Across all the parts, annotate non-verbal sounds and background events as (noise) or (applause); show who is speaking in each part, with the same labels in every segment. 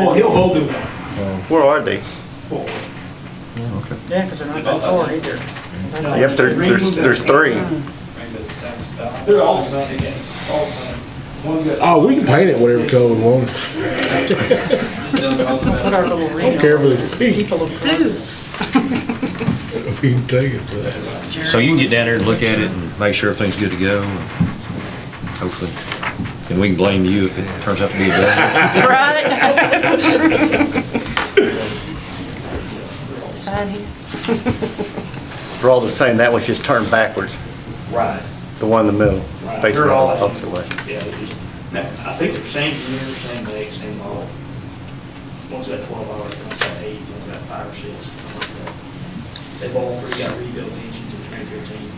Speaker 1: Oh, he'll hold it
Speaker 2: Where are they?
Speaker 1: forward.
Speaker 3: Yeah, because they're not that far either. That's
Speaker 2: Yep, there, there's, there's three.
Speaker 1: They're all the same, all the same. One's got-
Speaker 4: Oh, we can paint it whatever color we want.
Speaker 3: Put our little ring
Speaker 4: Don't care
Speaker 3: on.
Speaker 4: if it's pink,
Speaker 3: Keep a little blue.
Speaker 4: you can take it for that.
Speaker 5: So you can get down there and look at it and make sure everything's good to go. and Hopefully, and we can blame you if it turns out to be a disaster.
Speaker 3: (laughs) Right? Sign here.
Speaker 2: They're all the same, that was just turned backwards,
Speaker 1: Right.
Speaker 2: the one in the middle, it's facing the opposite way.
Speaker 1: Yeah, they just, no, I think they're same year, same date, same all. One's got twelve hours, one's got eight, one's got five or six. something like that. They've all three got rebuilt engines in twenty fifteen.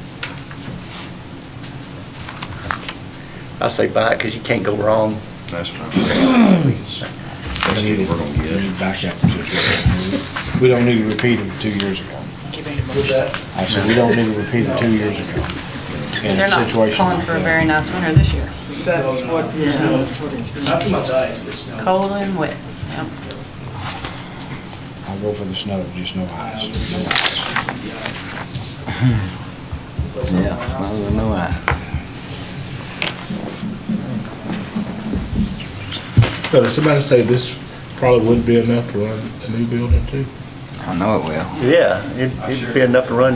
Speaker 2: I say buy it, because you can't go wrong.
Speaker 6: That's what I'm saying. That's what we're gonna get. Back up We don't need to repeat them two years ago.
Speaker 3: Keep it in
Speaker 1: With
Speaker 3: motion.
Speaker 1: that,
Speaker 6: I said, we don't need to repeat them two years ago. In
Speaker 7: They're
Speaker 6: a
Speaker 7: not
Speaker 6: situation
Speaker 7: calling
Speaker 6: like
Speaker 7: for a
Speaker 6: that.
Speaker 7: very nice winter this year.
Speaker 3: That's what, yeah, that's what it's
Speaker 1: not too
Speaker 3: been.
Speaker 1: much ice, but snow.
Speaker 7: Cold and wet. Yep.
Speaker 6: I'll go for the snow, just no ice, no ice.
Speaker 1: Yeah, snow.
Speaker 4: So did somebody say this probably wouldn't be enough to run a new building too?
Speaker 8: I know it will.
Speaker 2: Yeah, it'd, it'd be enough to run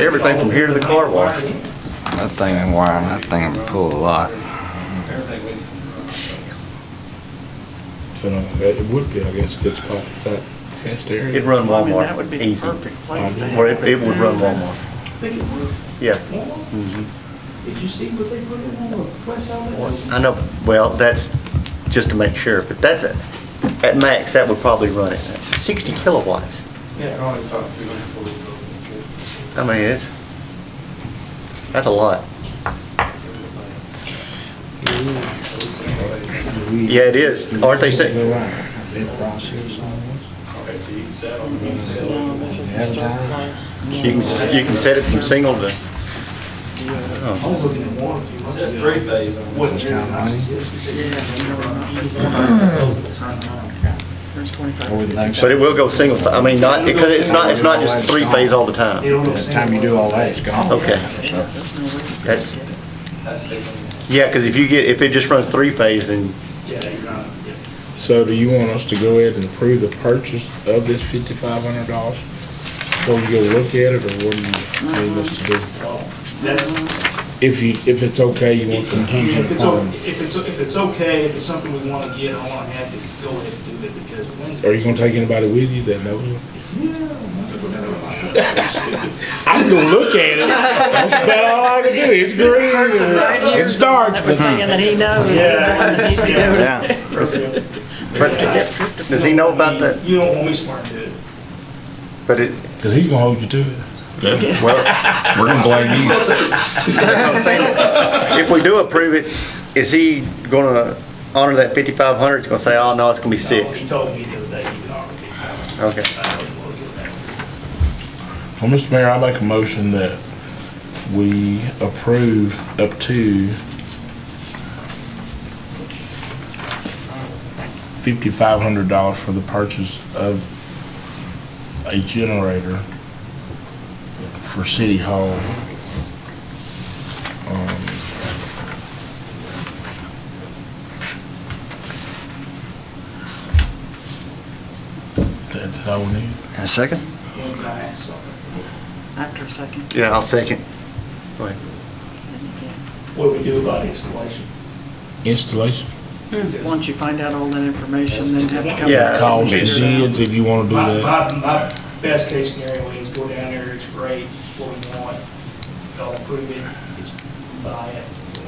Speaker 2: everything from here to the car wash.
Speaker 8: That thing and wire, that thing will pull a lot.
Speaker 4: You know, uh, it would be, I guess, a good spot for that fenced area.
Speaker 2: It'd run
Speaker 3: I mean, that would
Speaker 2: Walmart,
Speaker 3: be the
Speaker 2: easy.
Speaker 3: perfect place to
Speaker 2: Or
Speaker 3: have
Speaker 2: it, it would run Walmart,
Speaker 1: I think it worked.
Speaker 2: yeah.
Speaker 1: Did you see what they put in on the press outlet?
Speaker 2: I know, well, that's just to make sure, but that's, a- at max, that would probably run it. 60 kilowatts,
Speaker 1: Yeah, probably about two hundred forty.
Speaker 2: I mean, it's, that's a lot. Yeah, it is, aren't they
Speaker 6: Go
Speaker 2: saying,
Speaker 6: out, bid process on
Speaker 3: No, this is a certain place.
Speaker 2: you can, s- you can set it from single to,
Speaker 1: I was looking at one. a few months ago. Wasn't
Speaker 6: Those kind of money?
Speaker 3: There's
Speaker 6: this.
Speaker 3: 25.
Speaker 6: Over the next-
Speaker 2: but it will go single, I mean, not, because it's not, it's not just three phase all the
Speaker 1: They
Speaker 2: time.
Speaker 1: don't know
Speaker 6: By the time you do all that, it's gone.
Speaker 2: Okay. That's, yeah, because if you get, if it just runs three phase, then
Speaker 1: Yeah, you're not, yeah.
Speaker 4: So do you want us to go ahead and approve the purchase of this fifty-five hundred dollars? Before we go look at it, or what do you need us to do?
Speaker 1: Well, that's,
Speaker 4: If you, if it's okay, you want to
Speaker 1: if
Speaker 4: contingent
Speaker 1: it's, o-
Speaker 4: upon,
Speaker 1: if it's, if it's okay, if it's something we want to get, I want to have to go ahead and do it because Wednesday.
Speaker 4: are you gonna take anybody with you that knows them?
Speaker 1: Yeah.
Speaker 4: I'm gonna look at it. That's about all I can do. It's green. and It starts,
Speaker 3: That was
Speaker 4: but
Speaker 3: saying that he knows, he's the one that needs to go to.
Speaker 8: Yeah.
Speaker 2: But does he know about that?
Speaker 1: You don't want me smart to do it.
Speaker 2: But it,
Speaker 4: because he's gonna hold you to it.
Speaker 5: Yeah,
Speaker 2: well, (laughs)
Speaker 5: We're gonna blame you.
Speaker 2: that's what I'm saying. If we do approve it, is he gonna honor that fifty-five hundred? He's gonna say, oh, no, it's gonna be six.
Speaker 1: He told me the other day, you can already. I
Speaker 2: Okay.
Speaker 1: don't want to go back.
Speaker 4: Well, Mr. Mayor, I make a motion that we approve up to fifty-five hundred dollars for the purchase of a generator for City Hall. Um, That's all we need.
Speaker 8: And second?
Speaker 1: One guy asked something.
Speaker 3: After a second.
Speaker 2: Yeah, I'll second. Go ahead.
Speaker 1: What do we do about installation?
Speaker 4: Installation.
Speaker 7: Hmm.
Speaker 3: Once you find out all that information, then have to come.
Speaker 2: Yeah.
Speaker 3: back and
Speaker 4: calls the
Speaker 3: figure it out.
Speaker 4: bids if you want to do
Speaker 1: My,
Speaker 4: that.
Speaker 1: my, my best case scenario is go down there, it's great, it's what we want, they'll approve it, it's buy it.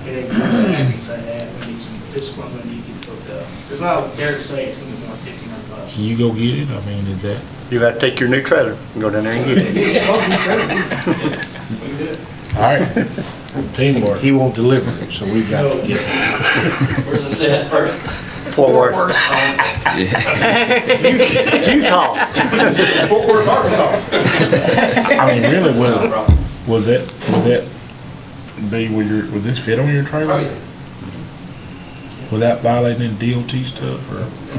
Speaker 1: It ain't gonna be anything like that, we need some, this is what we need to get hooked up. There's not, dare to say it's gonna be more than fifteen hundred bucks.
Speaker 4: Can you go get it? I mean, is that,
Speaker 2: You gotta take your new trailer and go down there and get it.
Speaker 1: We can do it.
Speaker 4: all right, (laughs) teamwork.
Speaker 6: He won't deliver it, so we've got to get it.
Speaker 9: Where's the set first?
Speaker 2: Fort Worth, Utah.
Speaker 1: Fort Worth, Arkansas.
Speaker 4: I mean, really, would, would that, would that be, would your,
Speaker 3: Oh,
Speaker 4: would this fit on your trailer? Without violating any DOT stuff or?